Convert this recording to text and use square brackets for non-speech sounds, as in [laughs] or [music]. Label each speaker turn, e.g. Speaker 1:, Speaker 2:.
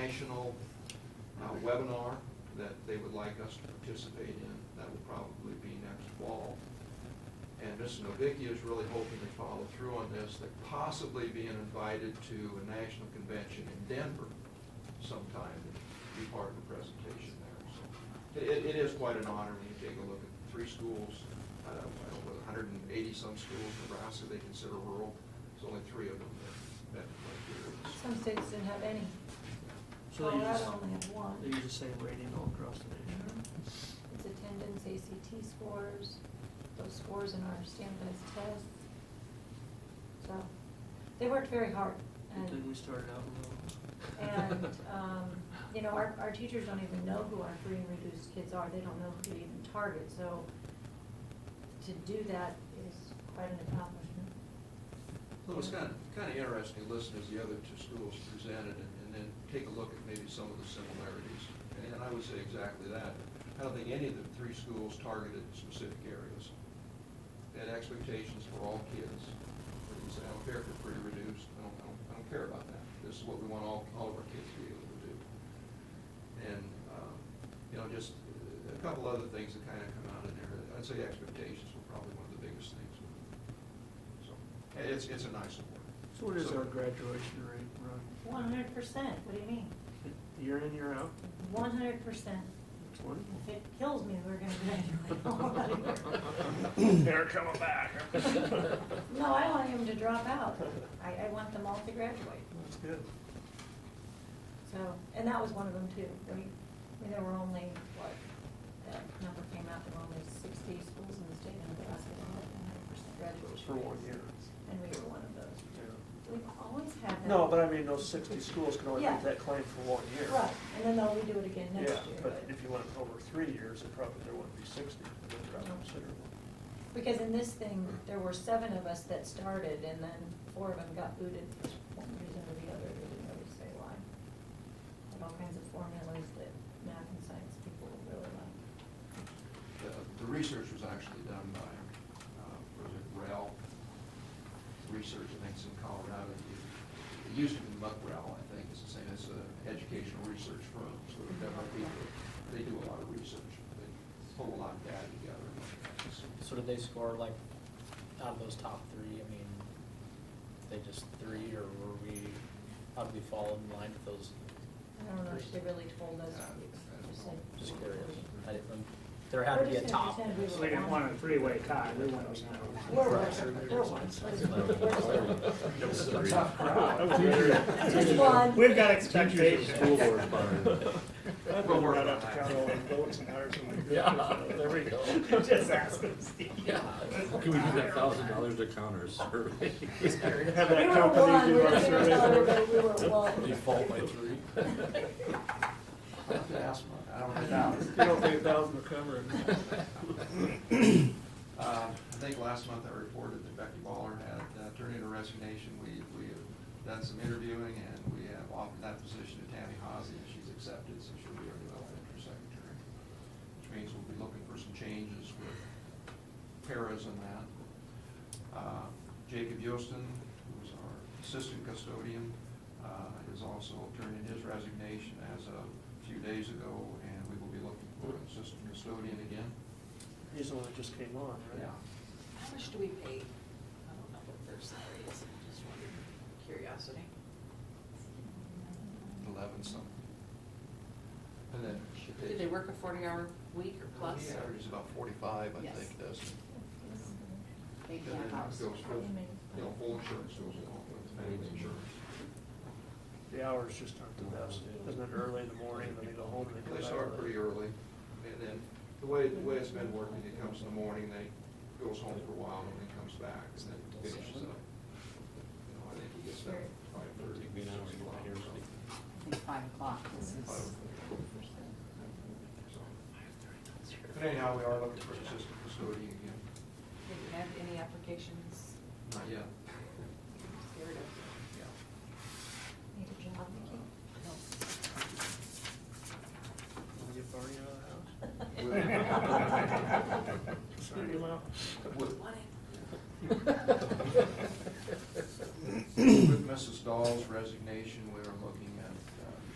Speaker 1: national uh, webinar that they would like us to participate in. That will probably be next fall. And Mrs. Novicki is really hoping to follow through on this, that possibly being invited to a national convention in Denver sometime, to be part of the presentation there. So it- It, it is quite an honor when you take a look at three schools, uh, I don't know, 180-some schools in Nebraska they consider rural. There's only three of them that, that criteria.
Speaker 2: Some states didn't have any.
Speaker 3: So they
Speaker 2: Colorado
Speaker 3: use,
Speaker 2: Oh, only had one. Mm-hmm.
Speaker 3: they use the same rating all across the nation.
Speaker 2: It's attendance, ACT scores, those scores in our standardized tests. So, they worked very hard.
Speaker 3: Good thing we
Speaker 2: And,
Speaker 3: started out low. [laughs]
Speaker 2: and, um, you know, our, our teachers don't even know who our free and reduced kids are. They don't know who to even target, so to do that is quite an accomplishment.
Speaker 1: So it was kind of, kind of interesting to listen as the other two schools presented and, and then take a look at maybe some of the similarities. And I would say exactly that. I don't think any of the three schools targeted specific areas. They had expectations for all kids. They didn't say, I don't care if they're free or reduced, I don't, I don't, I don't care about that. This is what we want all, all of our kids to be able to do. And, um, you know, just uh, a couple other things that kind of come out of there. I'd say expectations were probably one of the biggest things. So, and it's, it's a nice award.
Speaker 3: So what is
Speaker 1: So-
Speaker 3: our graduation rate, Ron?
Speaker 2: One hundred percent, what do you mean?
Speaker 3: Year in, year out?
Speaker 2: One hundred percent.
Speaker 3: It's wonderful.
Speaker 2: If it kills me, we're gonna graduate.
Speaker 3: They're coming back.
Speaker 2: [laughs] No, I want him to drop out. I, I want them all to graduate.
Speaker 3: That's good.
Speaker 2: So, and that was one of them too. I mean, I mean, there were only, what, that number came out, there were only sixty schools in the state of Nebraska that had one hundred percent graduation.
Speaker 3: For one
Speaker 2: rates.
Speaker 3: year.
Speaker 2: And we were one of those.
Speaker 3: Yeah.
Speaker 2: We've always had that.
Speaker 3: No, but I mean, those sixty schools can only
Speaker 2: Yeah.
Speaker 3: make that claim for one year.
Speaker 2: Right, and then they'll redo it again next
Speaker 3: Yeah,
Speaker 2: year.
Speaker 3: but if you went over three years, it probably, there wouldn't be sixty, it would drop
Speaker 2: No.
Speaker 3: considerably.
Speaker 2: Because in this thing, there were seven of us that started and then four of them got booted for one reason or the other, they didn't really say why. Had all kinds of formulas that math and science people really like.
Speaker 1: The uh, the research was actually done by, uh, was it REL? Research, I think it's in Colorado. It- It used to be MuckRel, I think, it's the same, it's an educational research firm, so there are people, they do a lot of research. They pull a lot of data together and look at it. So-
Speaker 4: So did they score like, out of those top three, I mean, they just three, or were we, how did we fall in line with those?
Speaker 2: I don't know if they really told us.
Speaker 1: Yeah, I don't
Speaker 2: Just said-
Speaker 1: know.
Speaker 4: Just curious, I didn't, there had to be a top.
Speaker 5: So they didn't want a three-way tie, we want to know.
Speaker 2: We're ones, we're ones.
Speaker 1: It's a tough crowd.
Speaker 2: Just one.
Speaker 5: We've got expectations.
Speaker 1: We'll work
Speaker 5: Right
Speaker 1: on
Speaker 5: up to
Speaker 1: that.
Speaker 5: count all the votes and ours and we-
Speaker 6: Yeah, there we
Speaker 5: [laughs]
Speaker 6: go.
Speaker 5: Just ask them, Steve.
Speaker 6: Yeah. Can we use that thousand dollars to counter a survey?
Speaker 5: Have
Speaker 2: We
Speaker 5: that
Speaker 2: were
Speaker 5: company
Speaker 2: one,
Speaker 5: do
Speaker 2: we're
Speaker 5: our
Speaker 2: just gonna
Speaker 5: survey.
Speaker 2: tell everybody we were
Speaker 5: [laughs]
Speaker 6: They
Speaker 2: one.
Speaker 6: fall
Speaker 2: [laughs]
Speaker 6: by three.
Speaker 1: I'll have to ask Muck. I don't know.
Speaker 3: You don't think a thousand will cover it?
Speaker 1: Uh, I think last month I reported that Becky Baller had uh, turned in her resignation. We, we have done some interviewing and we have offered that position to Tammy Hosey and she's accepted, so she'll be our development secretary. Which means we'll be looking for some changes with paras and that. Uh, Jacob Yostin, who's our assistant custodian, uh, has also turned in his resignation as of a few days ago and we will be looking for an assistant custodian again.
Speaker 3: He's the one that just came on, right?
Speaker 1: Yeah.
Speaker 7: How much do we pay? I don't know what their salary is, I'm just wondering, curiosity.
Speaker 1: eleven something. And then.
Speaker 7: Did they work a forty-hour week or plus?
Speaker 1: He
Speaker 7: or-
Speaker 1: averages about forty-five, I
Speaker 7: Yes.
Speaker 1: think, does.
Speaker 7: They
Speaker 1: And then
Speaker 7: can't house.
Speaker 1: goes with, You know, full insurance goes along with it, paid insurance.
Speaker 3: The hours just aren't the best, isn't it early in the morning, and then they go home and they go
Speaker 1: They
Speaker 3: back
Speaker 1: start
Speaker 3: late?
Speaker 1: pretty early, and then the way, the way it's been working, it comes in the morning, they goes home for a while, and then comes back, and then finishes up. You know, I think he gets back at five thirty.
Speaker 6: Take me an hour to get my hair ready.
Speaker 7: I think five o'clock, this
Speaker 1: Five
Speaker 7: is.
Speaker 1: o'clock. So, But anyhow, we are looking for an assistant custodian again,
Speaker 7: Did you have any applications?
Speaker 1: not yet.
Speaker 7: Scared of?
Speaker 1: Yeah.
Speaker 2: Need a job, Nikki?
Speaker 3: Wanna get Barney out of the house?
Speaker 1: Well-
Speaker 5: [laughs]
Speaker 3: Send him out.
Speaker 1: Would-
Speaker 7: Wanted.
Speaker 1: uh,